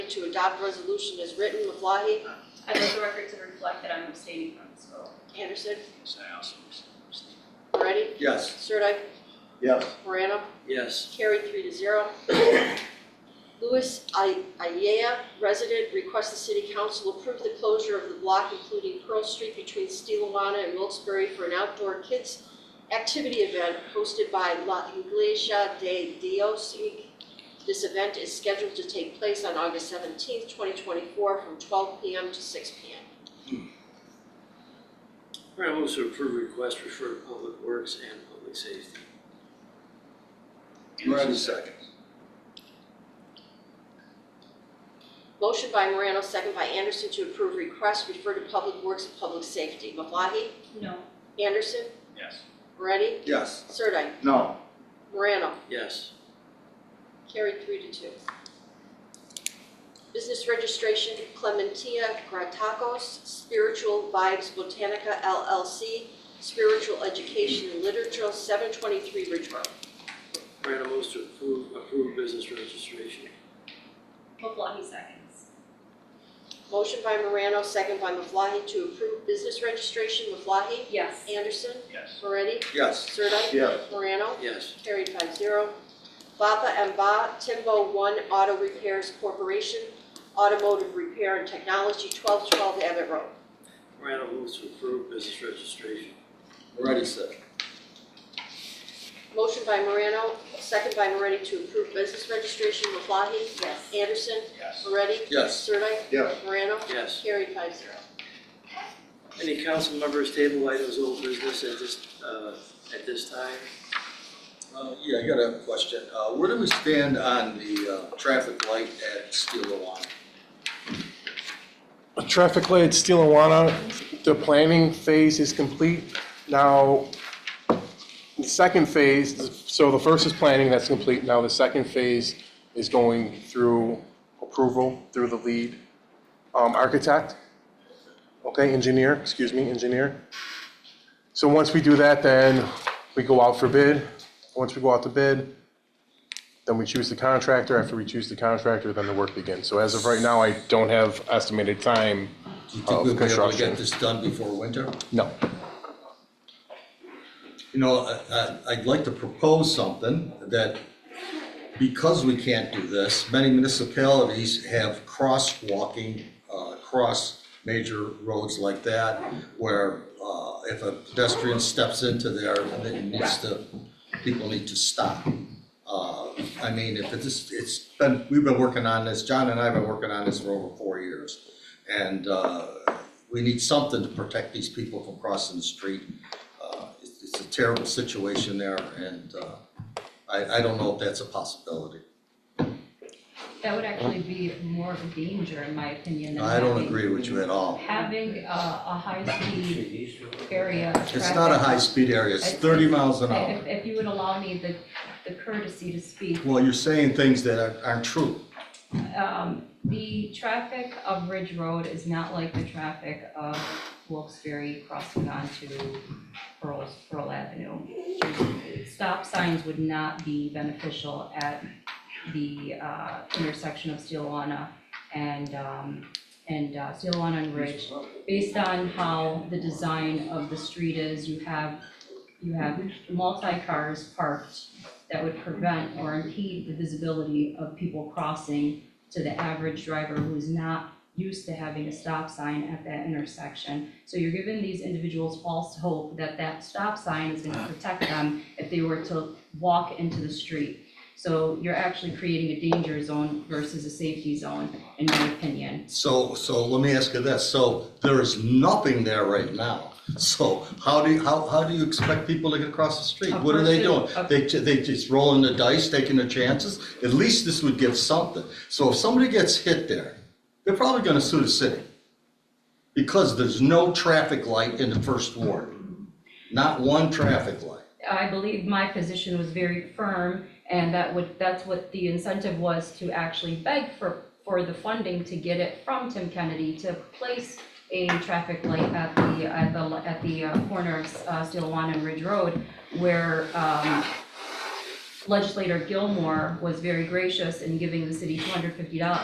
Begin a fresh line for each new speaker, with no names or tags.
to adopt resolution as written. Maflahe?
I want the record to reflect that I'm abstaining from this vote.
Anderson?
Yes, I also abstain.
Moretti?
Yes.
Sirdike?
Yes.
Morano?
Yes.
Carried three to zero. Louis I- Ayea, resident, requests the city council approve the closure of the block including Pearl Street between Steelawana and Wilkes-Barre for an outdoor kids activity event hosted by La Iglesia de Dios. This event is scheduled to take place on August seventeenth, twenty twenty-four, from twelve PM to six PM.
All right, moves to approve request refer to Public Works and Public Safety.
Moretti seconds.
Motion by Morano, second by Anderson to approve request, refer to Public Works and Public Safety. Maflahe?
No.
Anderson?
Yes.
Moretti?
Yes.
Sirdike?
No.
Morano,
Yes.
carried three to two. Business registration Clementia Gratacos, Spiritual Vibes Botanica LLC, Spiritual Education and Literature, 723 Ridge Road.
Morano moves to approve, approve business registration.
Maflahe seconds.
Motion by Morano, second by Maflahe to approve business registration. Maflahe?
Yes.
Anderson?
Yes.
Moretti?
Yes.
Sirdike?
Yes.
Morano?
Yes.
Carried five zero. Baba and Ba Timbo One Auto Repairs Corporation, Automotive Repair and Technology, 1212 Abbott Road.
Morano moves to approve business registration.
Moretti seconds.
Motion by Morano, second by Moretti to approve business registration. Maflahe?
Yes.
Anderson?
Yes.
Moretti?
Yes.
Sirdike?
Yes.
Morano?
Yes.
Carried five zero.
Any council members table items old business at this, uh, at this time?
Uh, yeah, I got a question. Uh, where do we stand on the, uh, traffic light at Steelawana?
A traffic light at Steelawana, the planning phase is complete. Now, the second phase, so the first is planning, that's complete. Now the second phase is going through approval through the lead um, architect, okay, engineer, excuse me, engineer. So once we do that, then we go out for bid. Once we go out to bid, then we choose the contractor. After we choose the contractor, then the work begins. So as of right now, I don't have estimated time
Do you think we'll
of
be able to
construction.
get this done before winter?
No.
You know, I- I, I'd like to propose something that, because we can't do this, many municipalities have crosswalking, uh, across major roads like that, where, uh, if a pedestrian steps into there, then it needs to, people need to stop. Uh, I mean, if it's, it's been, we've been working on this, John and I have been working on this for over four years. And, uh, we need something to protect these people from crossing the street uh, it's it's a terrible situation there, and uh, I, I don't know if that's a possibility.
That would actually be more of a danger, in my opinion, than
I don't
having-
agree with you at all.
Having a, a high-speed area.
It's not a high-speed area, it's thirty miles an
If,
hour.
if you would allow me the, the courtesy to speak,
Well, you're saying things that aren't- aren't true.
um, the traffic of Ridge Road is not like the traffic of Wilkes-Barre crossing onto Pearl, Pearl Avenue. Stop signs would not be beneficial at the, uh, intersection of Steelawana and, um, and, uh, Steelawana and Ridge. Based on how the design of the street is, you have, you have multi-cars parked that would prevent or impede the visibility of people crossing to the average driver who's not used to having a stop sign at that intersection. So you're giving these individuals false hope that that stop sign is gonna protect them if they were to walk into the street. So you're actually creating a danger zone versus a safety zone, in my opinion.
So, so let me ask you this, so there is nothing there right now. So how do you, how, how do you expect people to get across the street?
A
What are they doing?
person- a-
They, ju- they just rolling the dice, taking their chances? At least this would give something. So if somebody gets hit there, they're probably gonna sue the city. Because there's no traffic light in the first ward. Not one traffic light.
I believe my position was very firm, and that would, that's what the incentive was to actually beg for, for the funding to get it from Tim Kennedy to place a traffic light at the, at the, at the uh, corner of uh, Steelawana and Ridge Road, where um, legislator Gilmore was very gracious in giving the city two hundred fifty dollars.